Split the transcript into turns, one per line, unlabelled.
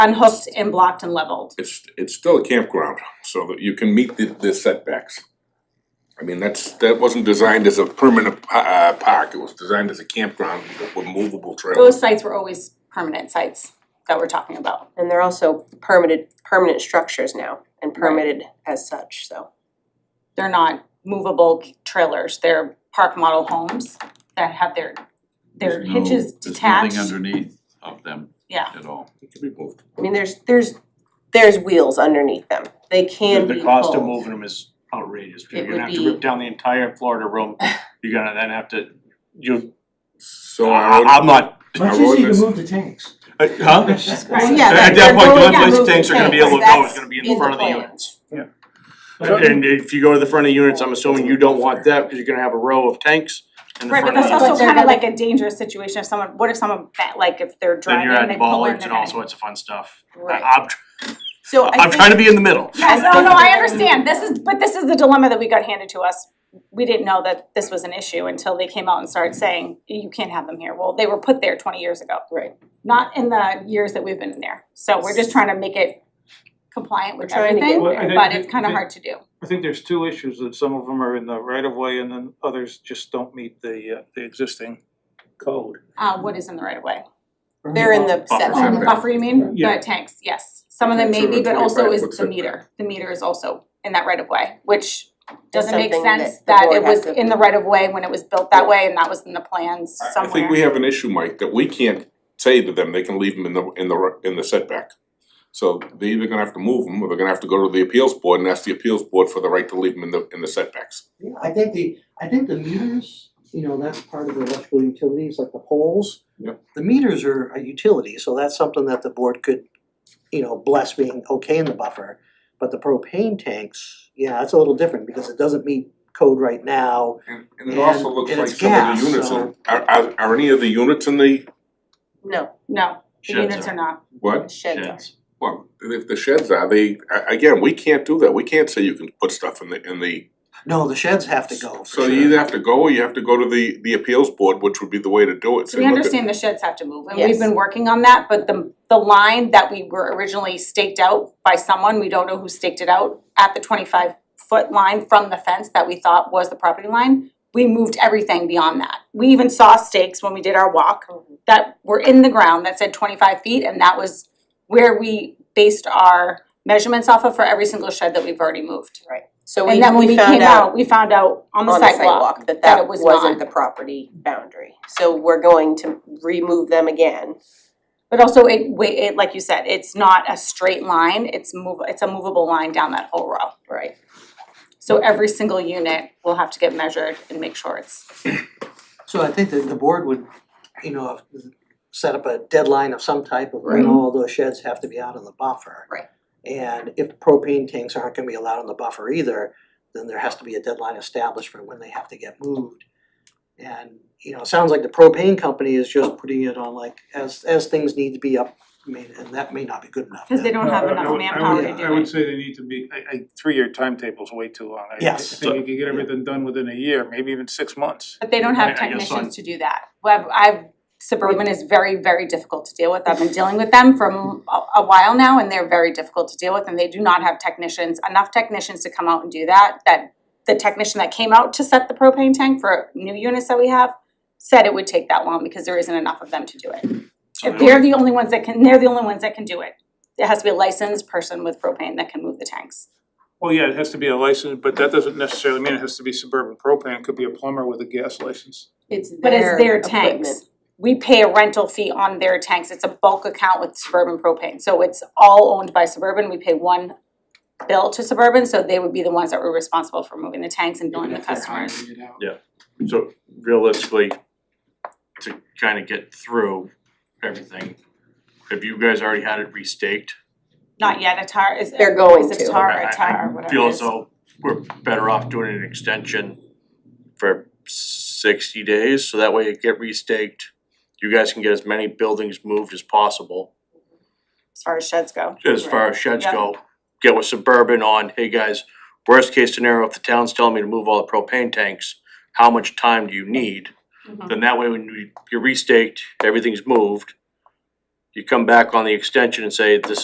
unhooked and blocked and leveled.
it's it's still a campground, so that you can meet the the setbacks. I mean, that's that wasn't designed as a permanent pa- uh park, it was designed as a campground with movable trails.
Those sites were always permanent sites that we're talking about.
And they're also permitted, permanent structures now and permitted as such, so.
They're not movable trailers, they're park model homes that have their their
There's no-
hitches detached.
There's nothing underneath of them
Yeah,
at all.
It can be moved.
I mean, there's, there's, there's wheels underneath them. They can
The-
be
The cost of
pulled.
moving them is outrageous, because
It
you're gonna
would
have to rip
be-
down the entire Florida room, you're gonna then have to, you,
So
I-
Uh,
our
I- I'm
ord-
not,
our
Much easier to
ordinance,
move the tanks.
uh, huh?
Right,
yeah,
At
they're-
that
they're
point,
going
the
to
Olympic
move the
tanks are gonna be able to
tanks.
go, it's gonna be in
That's
front of the
in the
units.
But-
And if you go to the front of the units, I'm assuming you don't want that, because you're gonna have a row of tanks in the
right,
front
but
of the
that's
units.
also
But they're
kind of
gonna-
like a dangerous situation if someone, what if someone, fa- like if they're
Then
driving,
you're
they
adding
pull in,
ballards
they're
and
gonna.
all sorts of fun stuff. I-
Right,
I'm,
so I think.
I'm trying to be in the middle.
Yes, Oh, no, no, I understand, this is, but this is the dilemma that we got handed to us. We didn't know that this was an issue until they came out and started saying, you can't have them here, well, they were put there twenty years ago.
Right.
Not in the years that we've been in there, so we're just trying to make it compliant with
We're trying to get
everything,
Well, I think
but
the-
it's kinda
the-
hard to do.
I think there's two issues, that some of them are in the right of way and then others just don't meet the uh the existing code.
Uh, what is in the right of way?
They're in the
Buffer.
Oh,
setback.
the buffer, you mean,
Yeah.
the tanks, yes, some of them
Okay,
may
so
be,
the
but also
25
is
foot
the
setback.
meter, the meter is also in that right of way, which doesn't make
something that
sense
the
that
board
it
has
was
to-
in the right of way when it was built that way and that was in the plans
I- I
somewhere.
think we have an issue, Mike, that we can't say to them, they can leave them in the in the r- in the setback. So they're either gonna have to move them, or they're gonna have to go to the appeals board and ask the appeals board for the right to leave them in the in the setbacks.
Yeah, I think the, I think the meters, you know, that's part of the electrical utilities, like the poles.
Yep.
The meters are a utility, so that's something that the board could, you know, bless being okay in the buffer. But the propane tanks, yeah, that's a little different because it doesn't meet code right now.
And and it also
And-
looks
and
like
it's
some of
gas,
the units are
so-
are are are any of the units in the,
No,
No, the
Sheds
units
are-
are not,
what?
sheds are.
Sheds.
Well, and if the sheds are, they, a- again, we can't do that, we can't say you can put stuff in the, in the.
No, the sheds have to go for
So
sure.
you either have to go or you have to go to the, the appeals board, which would be the way to do it.
so
Say,
we
look at-
understand the sheds have to move and
Yes.
we've been working on that, but the the line that we were originally staked out by someone, we don't know who staked it out at the twenty five foot line from the fence that we thought was the property line, we moved everything beyond that. We even saw stakes when we did our walk
Mm-hmm.
that were in the ground that said twenty five feet and that was where we based our measurements off of for every single shed that we've already moved.
So we,
And then when
we
we
found
came
out
out, we found out on
on
the
the
sidewalk,
sidewalk that
that it
that
was
wasn't
not.
the property boundary. So we're going to remove them again.
But also it wa- it, like you said, it's not a straight line, it's move, it's a movable line down that whole row.
Right.
So every single unit will have to get measured and make sure it's,
So I think that the board would, you know, set up a deadline of some type of when all those sheds have to be out in the buffer.
Right.
And if propane tanks aren't gonna be allowed in the buffer either, then there has to be a deadline established for when they have to get moved. And, you know, it sounds like the propane company is just putting it on like, as, as things need to be up, I mean, and that may not be good enough.
cause they don't have
No, I- I
enough
would- I
manpower
would-
to do it.
I would say they need to be, I I three-year timetable's way too long. I-
Yes.
I think you could get everything done within a year, maybe even six months.
But they don't
I- I
have
guess
technicians
I'm-
to do that. Well, I've, I've- suburban is very, very difficult to deal with. I've been dealing with them for m- a, a while now and they're very difficult to deal with and they do not have technicians, enough technicians to come out and do that, that the technician that came out to set the propane tank for new units that we have said it would take that long because there isn't enough of them to do it.
So
If
they
they're the only ones that can, they're the only ones that can do it. It has to be a licensed person with propane that can move the tanks.
Well, yeah, it has to be a license, but that doesn't necessarily mean it has to be suburban propane, it could be a plumber with a gas license.
It's their
But it's their
equipment.
tanks. We pay a rental fee on their tanks. It's a bulk account with Suburban Propane. So it's all owned by Suburban. We pay one bill to Suburban, so they would be the ones that were responsible for moving the tanks and billing the customers.
So realistically, to kind of get through everything, have you guys already had it restaked?
Not yet, a tar is
They're going
Is
to.
it tar
I-
or
I-
tar, whatever it
Feel as
is.
though we're better off doing an extension for sixty days, so that way it get restaked. You guys can get as many buildings moved as possible,
As far as sheds go.
as far as sheds
Yep.
go. Get with Suburban on, hey guys, worst case scenario, if the town's telling me to move all the propane tanks, how much time do you need?
Mhm.
Mm-hmm.
Then that way, when you- you're restaked, everything's moved, you come back on the extension and say, this